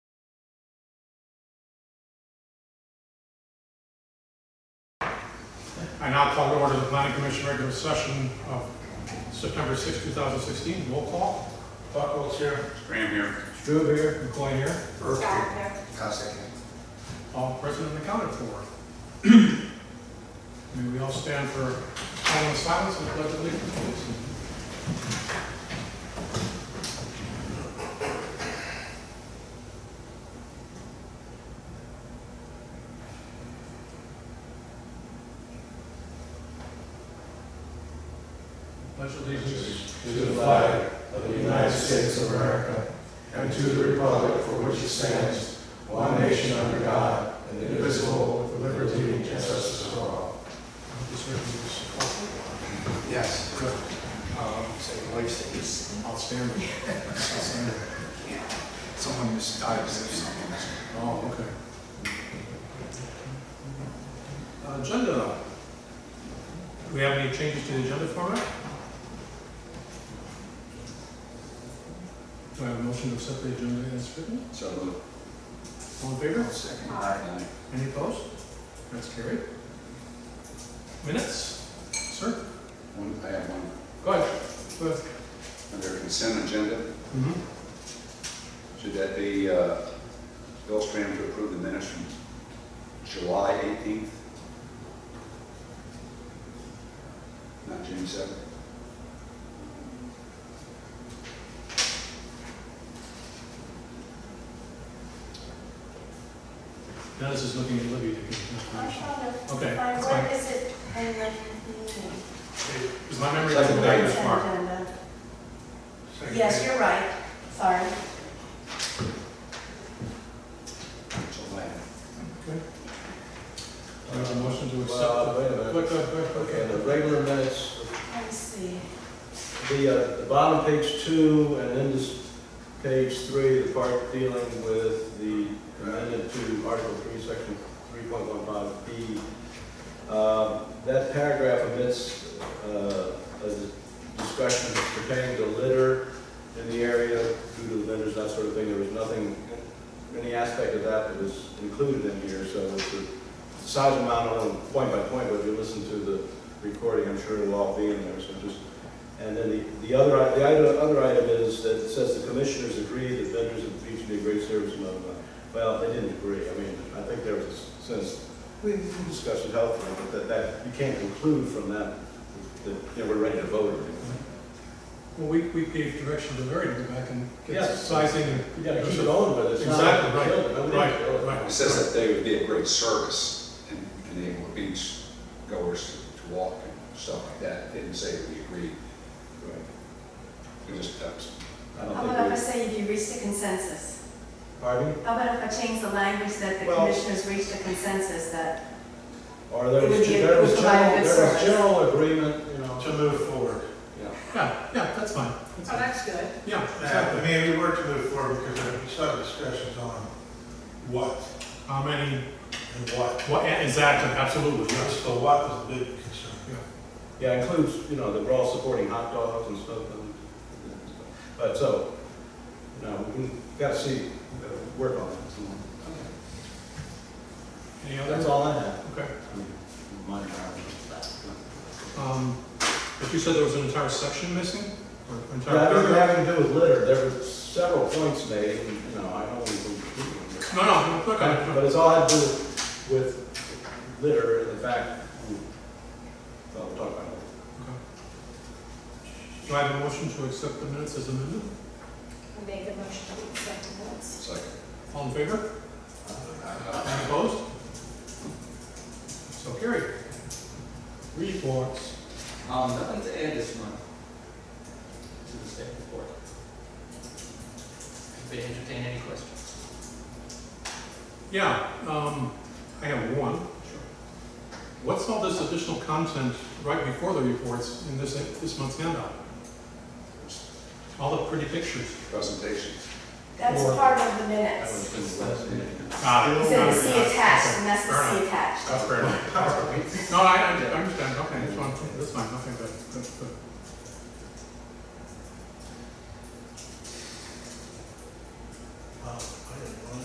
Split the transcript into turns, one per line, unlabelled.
I now call to order the planning commission regular session of September 6, 2016. Roll call. Buckles here.
Graham here.
Strube here. McLean here.
Scott here.
Cossack.
All present and accounted for. May we all stand for a moment of silence and pledge allegiance, please. Pledge allegiance.
to the flag of the United States of America and to the republic for which it stands, one nation under God, indivisible, with liberty and justice for all.
This resolution.
Yes. Um, so your wife says,
Outstanding. Outstanding.
someone misdives or something.
Oh, okay. Uh, Agenda. Do we have any changes to the agenda format? Do I have a motion to accept the agenda as written?
So moved.
All in favor?
Second.
Aye.
Any opposed? That's carried. Minutes? Sir?
One, I have one.
Go ahead. Go ahead. Mm-hmm.
Under consent agenda, should that be, uh, Bill Stram to approve the minutes from July 18th? Not June 7th?
Dennis is looking at Libby to get
I
information.
found it.
Okay,
By
that's
where
fine.
is it in the meeting?
Is my memory
Second
correct?
page.
It's marked.
Agenda. Yes, you're right, sorry.
July.
Do I have a motion to accept?
Well, wait a minute.
Go ahead, go ahead, go ahead.
Okay, the regular minutes,
Let me see.
the, uh, the bottom page two and then this page three, the part dealing with the amendment to Article three, section three point one five B. Uh, That paragraph omits uh, a discussion pertaining to litter in the area due to the vendors, that sort of thing. There was nothing, any aspect of that that was included in here, so it's a size amount on point by point, but if you listen to the recording, I'm sure it'll all be in there, so just. And then the, the other, i- the item- other item is that it says the commissioners agree that vendors of the beach be a great service, blah, blah, blah. Well, they didn't agree. I mean, I think there was a sense we we discussed it helpfully, but that, that, you can't conclude from that, that, you know, we're ready to vote or anything.
Well, we, we gave direction to Larry to go back and get
Yes.
sizing. and-
You gotta keep it on, but it's not.
Exactly, right,
Kill it. Nobody can kill
right,
it.
right.
It says that they would be a great service and enable beach goers to walk and stuff like that. It Didn't say that we agreed.
Right.
It just, that's
I
How about
don't
if I
think
say you reached a consensus?
we, pardon?
How about if I change the language that the
Well-
commissioners reached a consensus that,
Or there
It would
was,
be a-
there was
it would provide
general,
a good
there was
service.
general agreement, you know.
To move forward.
Yeah.
Yeah, yeah, that's fine. That's
Oh,
fine.
that's good.
Yeah,
I
exactly.
mean, we were to move forward because there were some discussions on what
How many,
and what.
well, Um, yeah, exactly, absolutely, yes.
So what was the big concern?
Yeah, includes, you know, that we're all supporting hot dogs and stuff. and- But so, you know, we've got to see, uh, work on it.
Any
That's
other?
all I have.
Okay.
I mean, Mine are.
Um, but you said there was an entire section missing? Or an entire
Yeah, it doesn't
paragraph?
have anything to do with litter, there were several points made, and, you know, I don't want to conclude them.
No, no, no, okay.
But it's all had to do with litter and the fact, well, we'll talk about it.
okay. Do I have a motion to accept the minutes as amended?
make a motion to accept the minutes.
it's like,
All in favor? Any opposed? So carried. Reports.
Um, nothing to add this month to the staff report. If they entertain any questions.
Yeah, um, I have one. What's all this additional content right before the reports in this, this month's handout? All the pretty pictures.
presentations.
That's
Or-
part of the
That was
minutes.
been the last meeting.
Ah,
It said see attached, and that's the see attached.
That's fair enough. No, I, I understand, okay, that's fine, that's fine, okay.